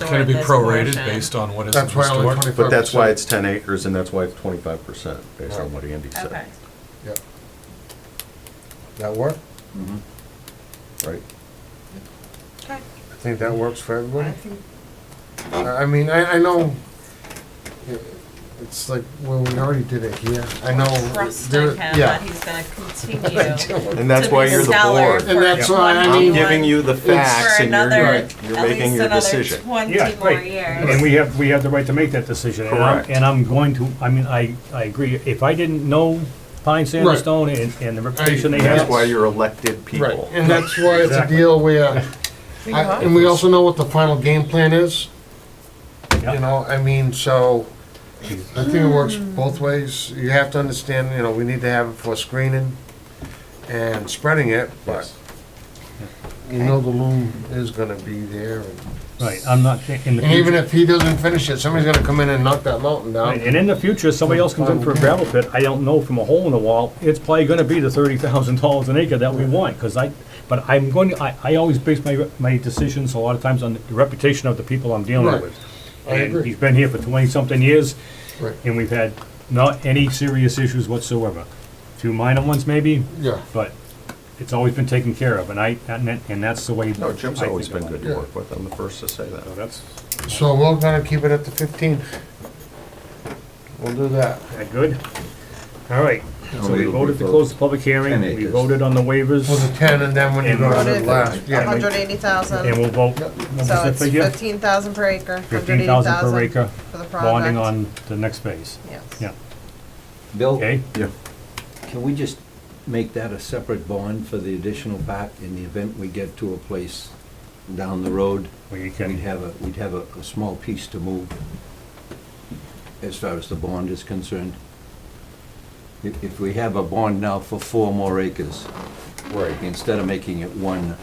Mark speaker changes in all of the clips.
Speaker 1: So
Speaker 2: Can it
Speaker 1: at
Speaker 2: be
Speaker 1: this
Speaker 2: prorated
Speaker 1: portion-
Speaker 2: based on what is
Speaker 3: That's why only
Speaker 2: historic?
Speaker 3: twenty-five percent.
Speaker 4: But that's why it's 10 acres, and that's why it's 25%, based on what Andy
Speaker 1: Okay,
Speaker 4: said.
Speaker 3: Yep. That work?
Speaker 4: Right?
Speaker 1: okay.
Speaker 3: I think that works for
Speaker 1: I
Speaker 3: everybody.
Speaker 1: think-
Speaker 3: I I mean, I, I know, it- it's like, well, we already did it here. I know. there-
Speaker 1: Trusting him
Speaker 3: yeah.
Speaker 1: that he's gonna continue.
Speaker 4: And that's
Speaker 1: to
Speaker 4: why
Speaker 1: be
Speaker 4: you're the
Speaker 1: stellar
Speaker 4: board.
Speaker 3: And
Speaker 1: for
Speaker 3: that's why I
Speaker 1: 21
Speaker 3: mean-
Speaker 4: I'm giving you the facts,
Speaker 1: For
Speaker 4: and you're,
Speaker 1: another,
Speaker 4: you're-
Speaker 1: at
Speaker 4: you're making
Speaker 1: least
Speaker 4: your
Speaker 1: another
Speaker 4: decision.
Speaker 1: twenty
Speaker 5: Yeah,
Speaker 1: more
Speaker 5: right. And
Speaker 1: years.
Speaker 5: we have, we have the right to make that decision. and I'm-
Speaker 4: Correct.
Speaker 5: And I'm going to, I mean, I, I agree, if I didn't know Pine Sand and
Speaker 3: Right.
Speaker 5: Stone and, and the reputation they
Speaker 4: And
Speaker 5: have.
Speaker 4: that's why you're elected
Speaker 3: Right,
Speaker 4: people.
Speaker 3: and that's why it's a
Speaker 5: Exactly.
Speaker 3: deal where, I- and we also know what the final game plan is. You
Speaker 5: Yeah.
Speaker 3: know, I mean, so, I think it works both ways. You have to understand, you know, we need to have it for screening and spreading it, but you know the loom is gonna be there. and-
Speaker 5: Right, I'm not, in the
Speaker 3: And even
Speaker 5: future,
Speaker 3: if he doesn't finish it, somebody's gonna come in and knock that mountain
Speaker 5: right,
Speaker 3: down.
Speaker 5: and in the future, somebody else comes in for a gravel pit, I don't know from a hole in the wall, it's probably gonna be the thirty thousand dollars an acre that we want, cause I, but I'm going, to- I, I always base my, my decisions a lot of times on the reputation of the people I'm dealing
Speaker 3: Right.
Speaker 5: with.
Speaker 3: I
Speaker 5: And
Speaker 3: agree.
Speaker 5: he's been here for twenty-something years,
Speaker 3: Right,
Speaker 5: and we've had not any serious issues whatsoever. Few minor ones maybe,
Speaker 3: yeah.
Speaker 5: but it's always been taken care of, and I, and that- and that's the way.
Speaker 4: No, Jim's
Speaker 5: I think
Speaker 4: always been
Speaker 5: about
Speaker 4: good
Speaker 5: it.
Speaker 4: to work with, I'm the first to say
Speaker 5: So
Speaker 4: that.
Speaker 5: that's,
Speaker 3: So we're gonna keep it at the fifteen. We'll do that.
Speaker 5: that good? All right, so we
Speaker 4: It'll be
Speaker 5: voted to
Speaker 4: voted.
Speaker 5: close the public hearing,
Speaker 4: Ten
Speaker 5: we
Speaker 4: acres.
Speaker 5: voted on the
Speaker 3: Well, the
Speaker 5: waivers,
Speaker 3: ten, and then when you
Speaker 5: And
Speaker 3: go to the
Speaker 6: voted
Speaker 3: last, yeah.
Speaker 5: we-
Speaker 6: Hundred eighty
Speaker 5: and
Speaker 6: thousand,
Speaker 5: we'll vote.
Speaker 3: Yep.
Speaker 5: what was
Speaker 6: so
Speaker 5: the
Speaker 6: it's
Speaker 5: figure?
Speaker 6: fifteen thousand per acre, hundred eighty
Speaker 5: 15,000 per
Speaker 6: thousand
Speaker 5: acre,
Speaker 6: for the project.
Speaker 5: bonding on the next phase, yeah,
Speaker 6: Yes.
Speaker 7: Bill,
Speaker 5: okay?
Speaker 4: Yeah.
Speaker 7: can we just make that a separate bond for the additional bat in the event we get to a place down the road?
Speaker 5: We
Speaker 7: We'd
Speaker 5: can,
Speaker 7: have a, we'd have a, a small piece to move as far as the bond is concerned. If, if we have a bond now for four more acres,
Speaker 4: Right.
Speaker 7: instead of making it one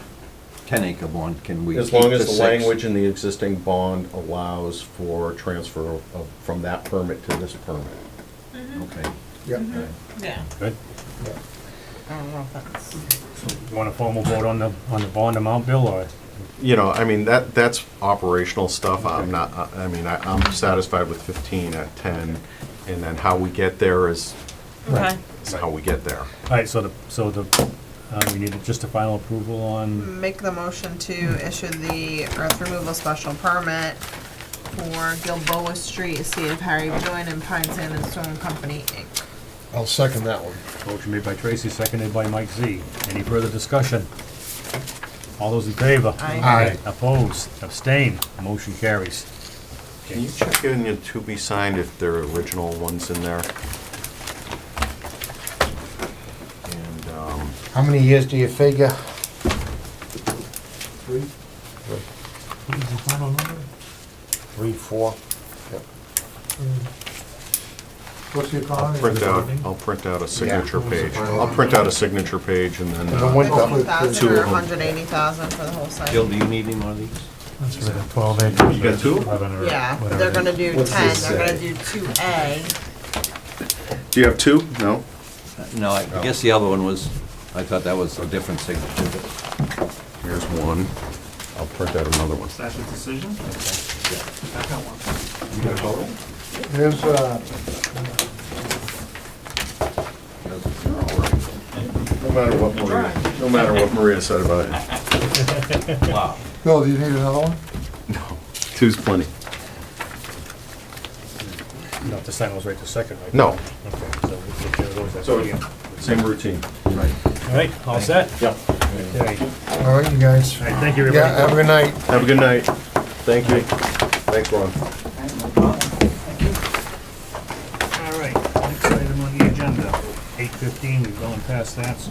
Speaker 7: ten-acre bond, can we?
Speaker 4: As long
Speaker 7: keep
Speaker 4: as the
Speaker 7: six?
Speaker 4: language in the existing bond allows for transfer of, from that permit to this permit.
Speaker 1: Mm-hmm.
Speaker 7: Okay.
Speaker 3: Yeah.
Speaker 1: Yeah.
Speaker 5: good.
Speaker 6: I don't know if that's.
Speaker 5: You want a formal vote on the, on the bond amount, Bill, or?
Speaker 4: You know, I mean, that, that's operational stuff, I'm not, I- I mean, I- I'm satisfied with 15 at 10, and then how we get there is,
Speaker 1: Okay.
Speaker 4: is how we get there.
Speaker 5: All right, so the, so the, uh, we need just a final approval on,
Speaker 6: Make the motion to issue the earth removal special permit for Gilboa Street, Estate of Harry Boyne and Pine Sand and Stone Company, Inc.
Speaker 3: I'll second that one.
Speaker 5: motion made by Tracy, seconded by Mike Z. Any further discussion? All those in favor?
Speaker 6: Aye.
Speaker 3: Aye.
Speaker 5: Opposed, abstain, motion carries.
Speaker 4: Can you check in your to be signed if there are original ones in there? And, um,
Speaker 3: How many years do you figure? Three. Three, four. Yep. What's your economy?
Speaker 4: print out, I'll print out a signature
Speaker 3: Yeah.
Speaker 4: page. I'll print out a signature page and then,
Speaker 3: And the one-
Speaker 4: uh,
Speaker 3: Hopefully
Speaker 6: Fifteen thousand
Speaker 4: two
Speaker 6: or
Speaker 4: of 'em.
Speaker 6: hundred eighty thousand for the whole site.
Speaker 7: Bill, do you need any more of these?
Speaker 5: Twelve acres.
Speaker 4: You got two?
Speaker 6: Yeah, they're gonna do
Speaker 4: What's
Speaker 6: ten,
Speaker 4: this
Speaker 6: they're gonna
Speaker 4: say?
Speaker 6: do two A.
Speaker 4: do you have two? No?
Speaker 7: Uh, No, I I guess the other one was, I thought that was a different signature, but.
Speaker 4: Here's one. I'll print out another one.
Speaker 8: That's a decision? I've got one.
Speaker 3: Here's, uh,
Speaker 4: No matter what Maria, no matter what Maria said about it.
Speaker 3: Bill, do you need another one?
Speaker 4: Two's plenty.
Speaker 5: Not to sign those right this second, right?
Speaker 4: No,
Speaker 5: Okay, so we'll take care of those.
Speaker 4: So-
Speaker 5: after you.
Speaker 4: same routine.
Speaker 5: All right, all set?
Speaker 4: Yep.
Speaker 5: Okay. All right,
Speaker 3: All right, you guys.
Speaker 5: thank you,
Speaker 3: Yeah, have
Speaker 5: everybody.
Speaker 3: a good night.
Speaker 4: Have a good night. Thank you. Thanks, Ron.
Speaker 5: All right, next item on the agenda, eight fifteen, we've gone past that, so.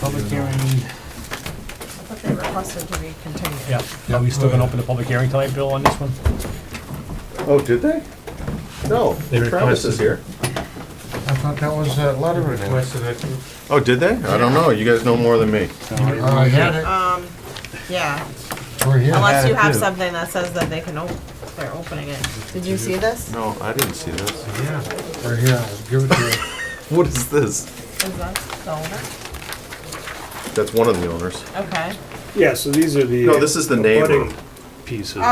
Speaker 5: Public hearing.
Speaker 6: I thought they requested to be continued.
Speaker 5: Yeah, are we still gonna open the public hearing tonight, Bill, on this one?
Speaker 4: Oh, did they? No,
Speaker 5: They
Speaker 4: Travis is
Speaker 5: requested-
Speaker 4: here.
Speaker 3: I thought that was a letter request.
Speaker 4: Oh, did they? I don't know. You guys know more than me.
Speaker 3: I had it.
Speaker 6: Um, yeah,
Speaker 3: We're here.
Speaker 6: unless you have
Speaker 3: Yeah.
Speaker 6: something that says that they can, op- they're opening it. Did you see this?
Speaker 4: No, I didn't see this.
Speaker 3: We're here, I'll give it to you.
Speaker 4: What is this?
Speaker 6: Is that the owner?
Speaker 4: That's one of the owners.
Speaker 6: Okay.
Speaker 8: Yeah, so these are the.
Speaker 4: No, this is the neighbor.
Speaker 8: abutting-
Speaker 2: pieces.